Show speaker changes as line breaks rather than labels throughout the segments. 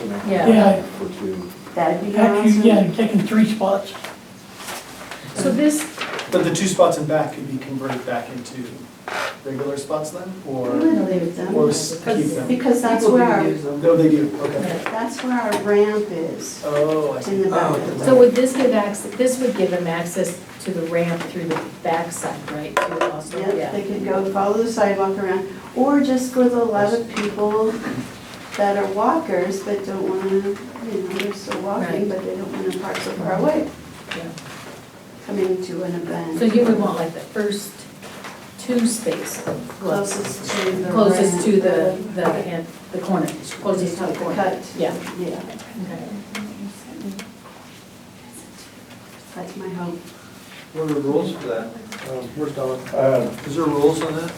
you know,
Yeah.
Yeah,
For two.
That'd be
actually, yeah,
awesome.
you're taking three spots.
So this,
But the two spots in back could be converted back into regular spots then,
We
or,
would leave them,
or s- keep
Because-
them?
because that's
People
where
can
our,
use them.
No, they do, okay.
that's where our ramp is,
Oh, I
in
see.
the back.
Oh.
so would this give access, this would give them access to the ramp through the backside, right? Through the hostel?
Yep, they could go follow the sidewalk around, or just for the lot of people that are walkers but don't wanna, you know, they're still walking,
Right.
but they don't wanna park so far away,
Yeah.
coming to an event.
So you would want like the first two spaces. well,
Closest to the.
Closest to the,
ramp,
the, hand- the corner, closest to the corner.
Cut.
Yeah.
Yeah,
Okay.
that's my hope.
What are the rules for that? Um, Where's Don?
Uh,
Is there rules on that?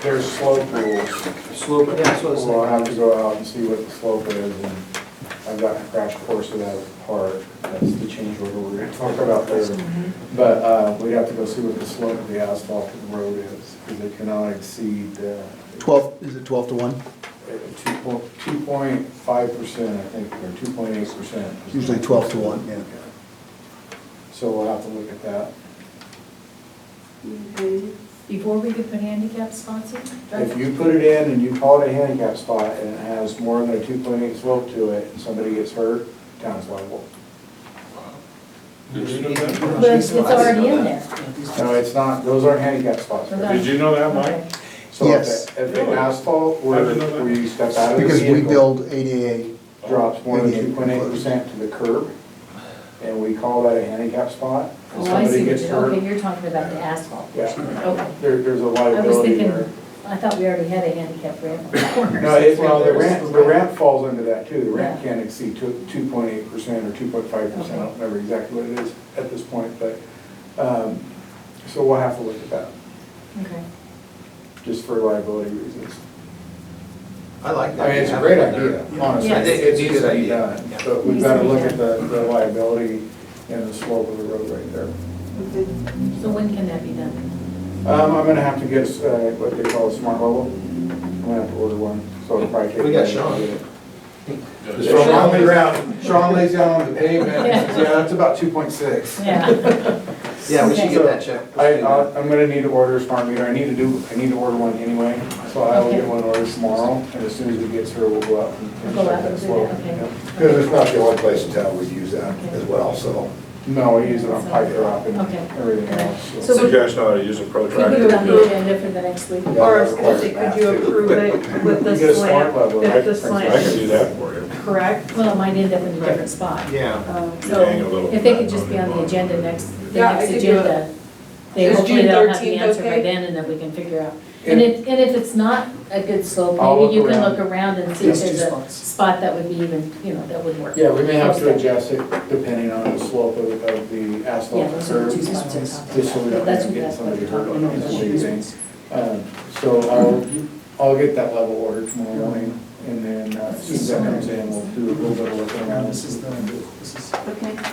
There's slope rules.
Slope, yeah, that's what I was
We'll
saying.
have to go out and see what the slope is, and I've got a crash course of that part, that's the change order we're gonna talk about later. But, uh, we have to go see what the slope of the asphalt of the road is, because it cannot exceed, uh,
12, is it 12 to 1?
two point, two point five percent, I think, or two point eight percent.
Usually 12 to 1, yeah.
So we'll have to look at that.
Okay.
Before we could put handicap spots in?
If you put it in and you call it a handicap spot and it has more than a two point eight slope to it, and somebody gets hurt, town's liable.
Did you know that?
But it's already in there.
No, it's not, those aren't handicap spots.
They're not.
Did you know that, Mike?
Okay.
So if
Yes.
the- if the asphalt where,
I didn't know that.
where you step out of the
Because we
vehicle
build ADA,
drops more than
Yeah.
two point eight percent to the curb, and we call that a handicap spot, and
Oh, I see,
somebody
what
gets
you-
hurt,
okay, you're talking about the asphalt.
yeah,
Okay.
there, there's a
I was
liability
thinking,
there.
I thought we already had a handicap ramp on the corner.
No, it, well, the ramp, the ramp falls under that too, the ramp
Yeah.
can't exceed two, two point eight percent or two point five percent, I don't remember exactly what it is at this point, but, um, so we'll have to look at that,
Okay.
just for liability reasons.
I like
I
that.
mean, it's a great idea, honestly.
Yeah.
It's
It
it's
is
good
an
idea,
idea.
done, But we've
Needs
got
to
to
be
look at
done.
the the liability and the slope of the road right there.
Okay.
So when can that be done?
Um, I'm gonna have to get, uh, what they call a smart level. I'm gonna have to order one, so it'll probably take.
We got Sean.
If Sean lays down, Sean lays down on the pavement,
Yeah.
yeah, that's about two point six.
Yeah,
Yeah, we should
So,
get that checked.
I, I'll- I'm gonna need to order a smart meter, I need to do, I need to order one anyway, so I will
Okay.
get one ordered tomorrow, and as soon as it gets here, we'll go out and- and
Go
check
out
that
and do
slope.
that, okay.
Yep.
Because
it's not the only place in town we use that
as
well, so.
No, we use it on pipe drop and
Okay.
everything else.
So
so.
So you guys know how to use a
we put it on
protractor.
the agenda for the next week.
Yeah.
Or, could you- could you approve it with
You get a
the
smart
slant,
level,
with
right?
the
I can
slant,
do that for you.
correct?
Well, it might end up in a different spot.
Yeah.
Um,
So
Hang a little
if they
bit
could just be on the
it.
agenda next, the
Yeah, I
next
could do it.
agenda, they
Is
hopefully
June
they'll have the
13th
answer by
okay?
then and then we can figure out.
And-
And if, and if it's not a good slope,
I'll
maybe you
look
can
around.
look around and see if
These two
there's a
spots.
spot that would be even, you know, that would work.
Yeah, we may have to
Okay.
adjust it depending on the slope of, of the
Yeah,
asphalt
those are the
curb.
two spots I'm talking about.
Just so we don't
That's-
get
that's what
somebody
we're
hurt
talking
on
about.
this thing. Um, So I'll, I'll get that level ordered tomorrow morning, and then uh, as soon as that comes in, we'll do a little bit of looking
Now,
around.
this is the, this is.
Okay.
looking at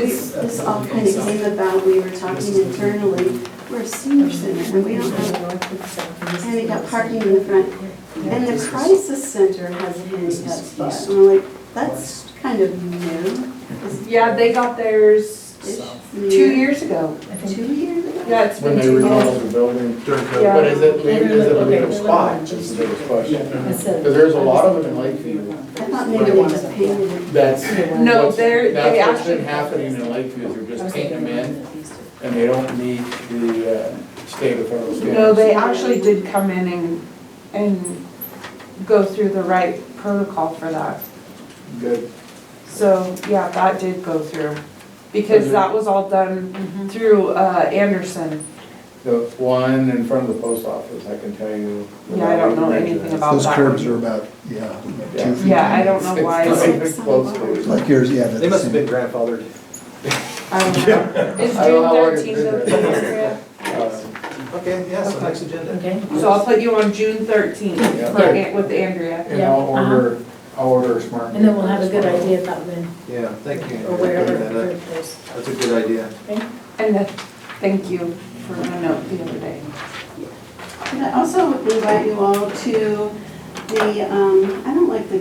This,
that
this all
on
kind of
side.
came about, we were talking internally, we're a senior center, and we don't have handicap parking in the front, and the crisis center has a handicap spot, and we're like, that's kind of new. It's-
Yeah, they got theirs
it's new.
two years ago.
Two years ago?
Yeah, it's
When
been
they
two years.
remodel the building.
During COVID.
Yeah.
But is it,
Yeah.
is it a legal
Yeah.
spot? That's the biggest question.
Because
Because there's a lot of them in Lakeview.
I thought maybe they just painted it.
That's,
No,
what's-
they're- they
That's what's been
actually-
happening in Lakeview, is they're just painting them in, and they don't meet the uh, state of federal standards.
No, they actually did come in and, and go through the right protocol for that.
Good.
So, yeah, that did go through, because that was all done through uh, Anderson.
The one in front of the post office, I can tell you.
Yeah, I don't know anything about
Those
that
curbs
one.
are about, yeah, about
Yeah.
two feet.
Um, Yeah, I don't know why,
It's
I
very close.
Like yours, yeah. they're
They
the
must have
same.
been grandfathered.
don't
Uh,
know. It's June
I don't know what it
13th of
is.
this year.
Uh,
Okay, yeah, so next agenda.
Okay.
So I'll put you on June 13th
Yeah.
for An- with Andrea.
And I'll order, I'll order a smart.
Uh-huh. And then we'll have a good idea about when,
Yeah, thank you. Andrea,
or
for
wherever.
bringing that up.
there's-
That's a good idea.
And then, thank you for the note the other day.
And I also invite you all to the, um, I don't like the